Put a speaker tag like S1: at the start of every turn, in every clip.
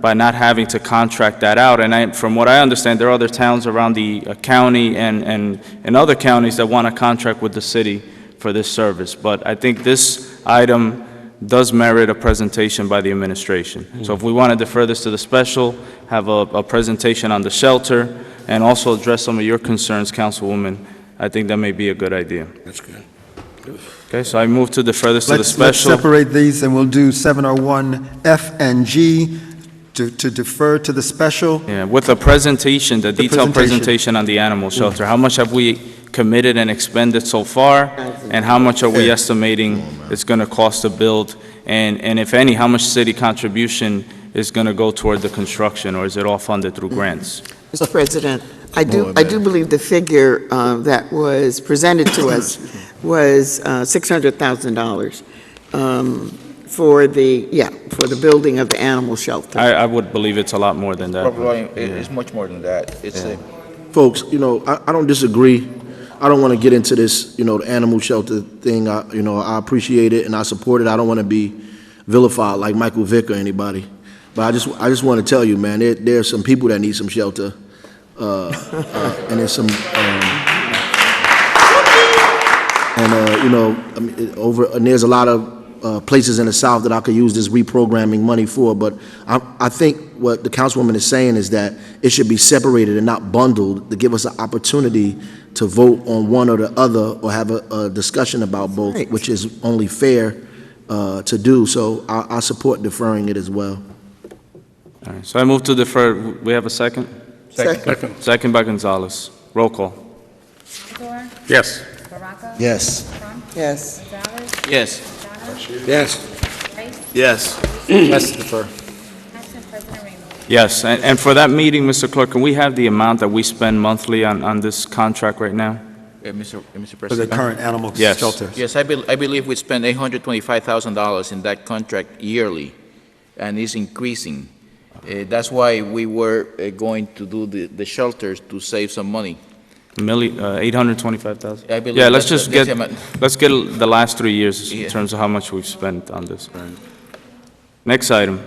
S1: by not having to contract that out. And I, from what I understand, there are other towns around the uh, county and, and, and other counties that want to contract with the city for this service. But I think this item does merit a presentation by the administration. So if we want to defer this to the special, have a, a presentation on the shelter, and also address some of your concerns, Councilwoman, I think that may be a good idea.
S2: That's good.
S1: Okay, so I move to defer this to the
S3: Let's, let's
S1: special.
S3: separate these, and we'll do 701F and G to to defer to the special.
S1: Yeah, with a presentation, the
S3: The
S1: detailed
S3: presentation.
S1: presentation on the animal shelter. How much have we committed and expended so far? And how much are we estimating it's going to cost to build? And, and if any, how much city contribution is going to go toward the construction, or is it all funded through grants?
S4: Mr. President, I
S2: More
S4: do, I
S2: than-
S4: do believe the figure uh, that was presented to us was uh, $600,000 um, for the, yeah, for the building of the animal shelter.
S1: I, I would believe it's a lot more than that.
S5: Probably, it- it's much more than that. It's a,
S2: Folks, you know, I, I don't disagree. I don't want to get into this, you know, the animal shelter thing. I, you know, I appreciate it and I support it. I don't want to be vilified like Michael Vick or anybody. But I just, I just want to tell you, man, there, there are some people that need some shelter. Uh, uh, and there's some, um, And, uh, you know, I mean, it- over, and there's a lot of uh, places in the South that I could use this reprogramming money for, but I, I think what the councilwoman is saying is that it should be separated and not bundled to give us an opportunity to vote on one or the other or have a, a discussion about both,
S4: Right.
S2: which is only fair uh, to do. So I, I support deferring it as well.
S1: All right, So I move to defer. We have a second?
S4: Second.
S1: Second by Gonzalez. Roll call.
S6: Fedor,
S7: Yes.
S6: Baraco.
S2: Yes.
S6: Trump,
S4: Yes.
S6: Gonzalez,
S1: Yes.
S6: O'Donnell,
S7: Yes.
S6: Rice,
S7: Yes. Yes, defer.
S6: Paxton, President Ramos.
S1: Yes, and, and for that meeting, Mr. Clerk, can we have the amount that we spend monthly on, on this contract right now?
S5: eh, Mr. eh,
S3: For
S5: Mr.
S3: the
S5: President.
S3: current animal
S1: Yes.
S3: shelter.
S5: Yes, I bel- I believe we spend $825,000 in that contract yearly, and it's increasing. Eh, That's why we were eh, going to do the the shelters to save some money.
S1: Milli, uh, 825,000?
S5: I believe
S1: Yeah, let's
S5: that's
S1: just
S5: the-
S1: get,
S5: that's the
S1: let's get the last three years in
S5: Yeah.
S1: terms of how much we've spent on this. Next item.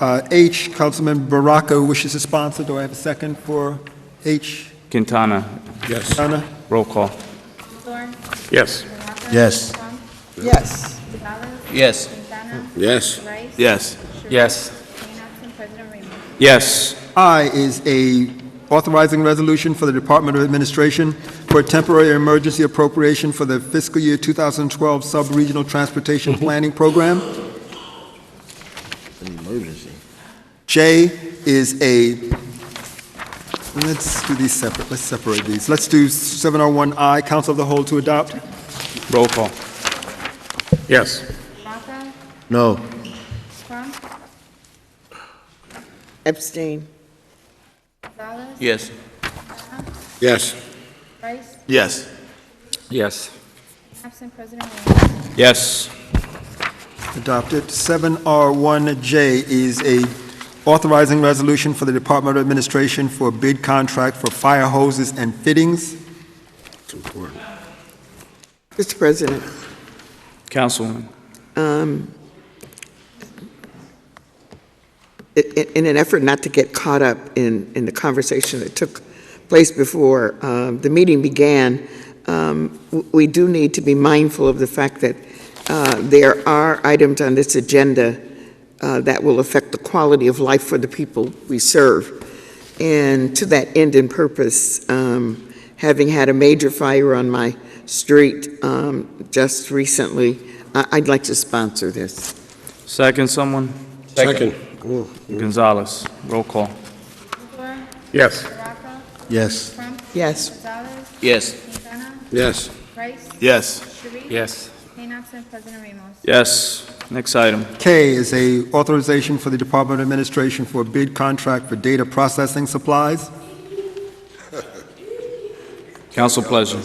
S3: Uh, H, Councilman Baraka wishes to sponsor. Do I have a second for H?
S1: Quintana,
S7: Yes.
S3: Donna?
S1: roll call.
S6: Fedor,
S7: Yes.
S6: Baraco.
S2: Yes.
S6: Trump,
S4: Yes.
S6: Gonzalez,
S5: Yes.
S6: Quintana,
S7: Yes.
S6: Rice.
S7: Yes.
S6: Sharif, Jane Addison, President Ramos.
S1: Yes,
S3: I is a authorizing resolution for the Department of Administration for a temporary emergency appropriation for the fiscal year 2012 Sub-Regional Transportation Planning Program.
S2: Emergency.
S3: J is a, let's do these separate, let's separate these. Let's do 701I, Council of the Whole to adopt.
S1: roll call.
S7: Yes.
S6: Baraco,
S2: No.
S6: Trump,
S4: Epstein.
S6: Gonzalez,
S5: Yes.
S7: Yes.
S6: Rice,
S7: Yes.
S8: Yes.
S6: absent President Ramos.
S1: Yes,
S3: Adopted. 7R1J is a authorizing resolution for the Department of Administration for a bid contract for fire hoses and fittings.
S4: Mr. President,
S1: Councilwoman.
S4: um, i- i- in an effort not to get caught up in, in the conversation that took place before um, the meeting began, um, w- we do need to be mindful of the fact that uh, there are items on this agenda uh, that will affect the quality of life for the people we serve. And to that end and purpose, um, having had a major fire on my street um, just recently, I- I'd like to sponsor this.
S1: Second, someone?
S7: Second.
S1: Gonzalez, roll call.
S6: Fedor,
S7: Yes.
S6: Baraco,
S2: Yes.
S6: Trump,
S4: Yes.
S6: Gonzalez,
S5: Yes.
S6: Quintana,
S7: Yes.
S6: Rice,
S7: Yes.
S6: Sharif.
S8: Yes.
S6: Jane Addison, President Ramos.
S1: Yes, next item.
S3: K is a authorization for the Department of Administration for a bid contract for data processing supplies.
S1: Council pleasure.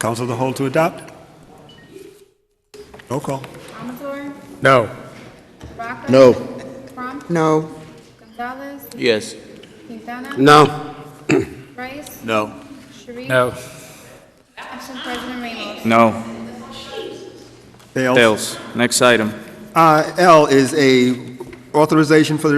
S3: Council of the Whole to adopt. Roll call.
S6: Amador,
S7: No.
S6: Baraco.
S2: No.
S6: Trump,
S4: No.
S6: Gonzalez,
S5: Yes.
S6: Quintana.
S7: No.
S6: Rice,
S7: No.
S6: Sharif.
S8: No.
S6: Absent President Ramos.
S1: No,
S3: Fails.
S1: fails. Next item.
S3: Uh, L is a authorization for the